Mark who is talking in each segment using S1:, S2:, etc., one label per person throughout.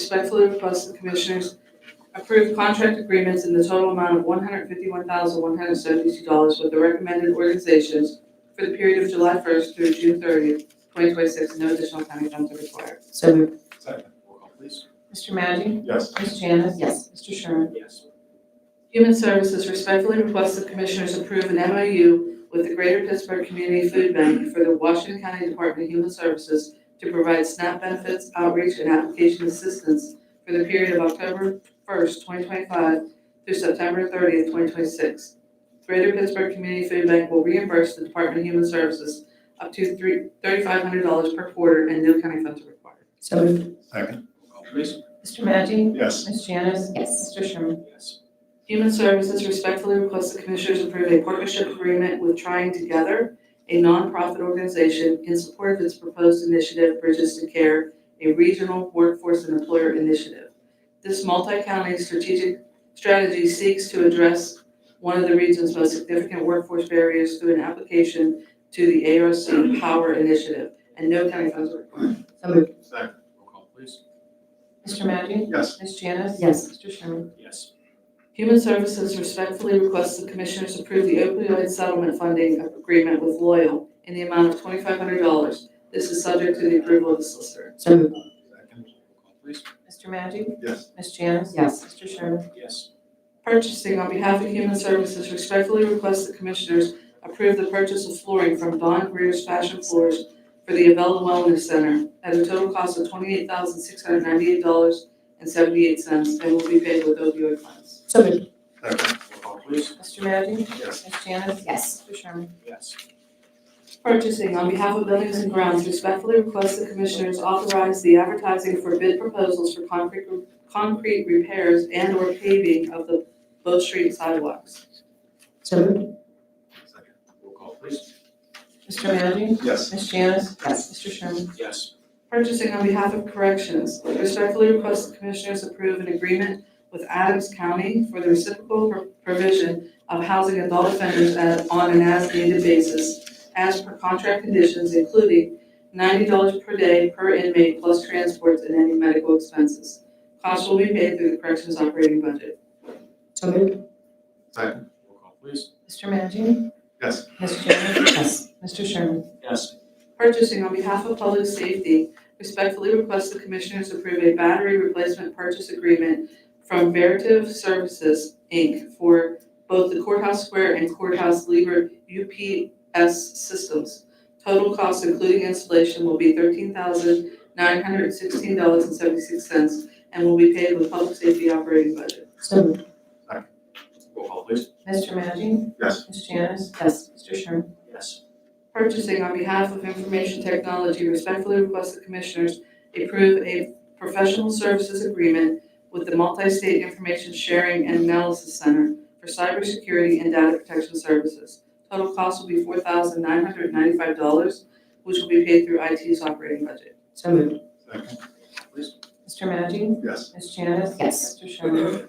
S1: respectfully request the Commissioners approve contract agreements in the total amount of $151,172 with the recommended organizations for the period of July 1st through June 30th, 2026. No additional county funds are required.
S2: So moved.
S3: Second. Roll call, please.
S4: Mr. Magic?
S3: Yes.
S4: Ms. Janice?
S2: Yes.
S4: Mr. Sherman?
S3: Yes.
S1: Human Services respectfully requests the Commissioners approve an MOU with the Greater Pittsburgh Community Food Bank for the Washington County Department of Human Services to provide SNAP benefits, outreach, and application assistance for the period of October 1st, 2025 through September 30th, 2026. Greater Pittsburgh Community Food Bank will reimburse the Department of Human Services up to three- $3,500 per quarter and no county funds are required.
S2: So moved.
S3: Second. Roll call, please.
S4: Mr. Magic?
S3: Yes.
S4: Ms. Janice?
S2: Yes.
S4: Mr. Sherman?
S3: Yes.
S1: Human Services respectfully requests the Commissioners approve a partnership agreement with Trying Together, a nonprofit organization in support of its proposed initiative Bridges to Care, a regional workforce and employer initiative. This multi-county strategic strategy seeks to address one of the region's most significant workforce barriers through an application to the ARC Power Initiative, and no county funds are required.
S2: So moved.
S3: Second. Roll call, please.
S4: Mr. Magic?
S3: Yes.
S4: Ms. Janice?
S2: Yes.
S4: Mr. Sherman?
S3: Yes.
S1: Human Services respectfully requests the Commissioners approve the opioid settlement funding agreement with Loyal in the amount of twenty-five hundred dollars. This is subject to the approval of the solicitor.
S2: So moved.
S3: Second. Roll call, please.
S4: Mr. Magic?
S3: Yes.
S4: Ms. Janice?
S2: Yes.
S4: Mr. Sherman?
S3: Yes.
S1: Purchasing on behalf of Human Services respectfully requests the Commissioners approve the purchase of flooring from Don Greer's Fashion Floors for the Avella Wellness Center at a total cost of twenty-eight thousand six hundred ninety-eight dollars and seventy-eight cents and will be paid with opioid funds.
S2: So moved.
S3: Second. Roll call, please.
S4: Mr. Magic?
S3: Yes.
S4: Ms. Janice?
S2: Yes.
S4: Mr. Sherman?
S3: Yes.
S1: Purchasing, on behalf of Buildings and Grounds, respectfully request the Commissioners authorize the advertising for bid proposals for concrete, concrete repairs and/or paving of the Bow Street sidewalks.
S2: So moved.
S3: Second. Roll call, please.
S4: Mr. Magic?
S3: Yes.
S4: Ms. Janice?
S2: Yes.
S4: Mr. Sherman?
S3: Yes.
S1: Purchasing, on behalf of Corrections, respectfully request the Commissioners approve an agreement with Adams County for the reciprocal pro- provision of housing adult offenders at- on an as-needed basis as per contract conditions, including ninety dollars per day per inmate plus transports and any medical expenses. Costs will be paid through the Corrections operating budget.
S2: So moved.
S3: Second. Roll call, please.
S4: Mr. Magic?
S3: Yes.
S4: Ms. Janice?
S2: Yes.
S4: Mr. Sherman?
S3: Yes.
S1: Purchasing on behalf of Public Safety, respectfully request the Commissioners approve a battery replacement purchase agreement from Veritiv Services, Inc. for both the courthouse square and courthouse lever UPS systems. Total cost including installation will be thirteen thousand nine hundred sixteen dollars and seventy-six cents and will be paid with Public Safety operating budget.
S2: So moved.
S3: Roll call, please.
S4: Mr. Magic?
S3: Yes.
S4: Ms. Janice?
S2: Yes.
S4: Mr. Sherman?
S3: Yes.
S1: Purchasing on behalf of Information Technology respectfully request the Commissioners approve a professional services agreement with the Multi-State Information Sharing and Analysis Center for Cybersecurity and Data Protection Services. Total cost will be four thousand nine hundred ninety-five dollars, which will be paid through IT's operating budget.
S2: So moved.
S3: Second. Please.
S4: Mr. Magic?
S3: Yes.
S4: Ms. Janice?
S2: Yes.
S4: Mr. Sherman?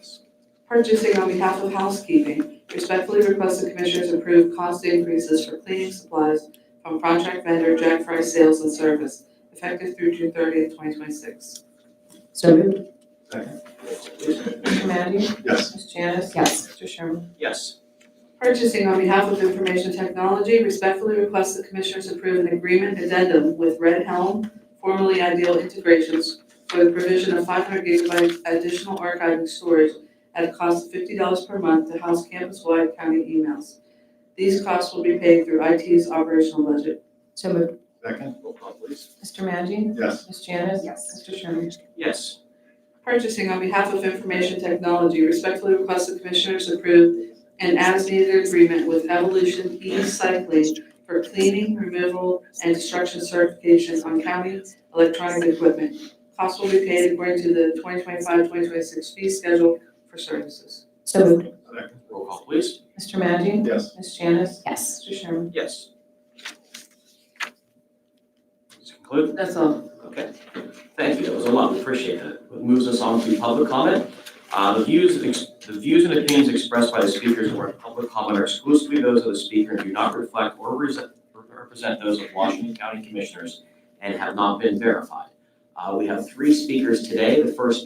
S1: Purchasing on behalf of housekeeping, respectfully request the Commissioners approve cost increases for cleaning supplies from contract vendor Jack Fry Sales and Service, effective through June thirtieth, twenty twenty-six.
S2: So moved.
S3: Second. Roll call, please.
S4: Mr. Magic?
S3: Yes.
S4: Ms. Janice?
S2: Yes.
S4: Mr. Sherman?
S3: Yes.
S1: Purchasing on behalf of Information Technology respectfully requests the Commissioners approve an agreement addendum with Red Helm, formerly Ideal Integrations, for the provision of five hundred gigabytes additional archiving storage at a cost of fifty dollars per month to house campus-wide county emails. These costs will be paid through IT's operational budget.
S2: So moved.
S3: Second. Roll call, please.
S4: Mr. Magic?
S3: Yes.
S4: Ms. Janice?
S2: Yes.
S4: Mr. Sherman?
S3: Yes.
S1: Purchasing on behalf of Information Technology respectfully requests the Commissioners approve an as-needed agreement with Evolution E-Cycling for cleaning, removal, and destruction certifications on county electronic equipment. Costs will be paid according to the 2025-2026 fee schedule for services.
S2: So moved.
S3: Second. Roll call, please.
S4: Mr. Magic?
S3: Yes.
S4: Ms. Janice?
S2: Yes.
S4: Mr. Sherman?
S3: Yes. Does it conclude?
S1: That's all.
S5: Okay, thank you, that was a lot, we appreciate that. That Moves us on to public comment. Uh, The views, and ex- the views and opinions expressed by the speakers during public comment are exclusively those of the speaker and do not reflect or resent- represent those of Washington County Commissioners and have not been verified. Uh, We have three speakers today. The first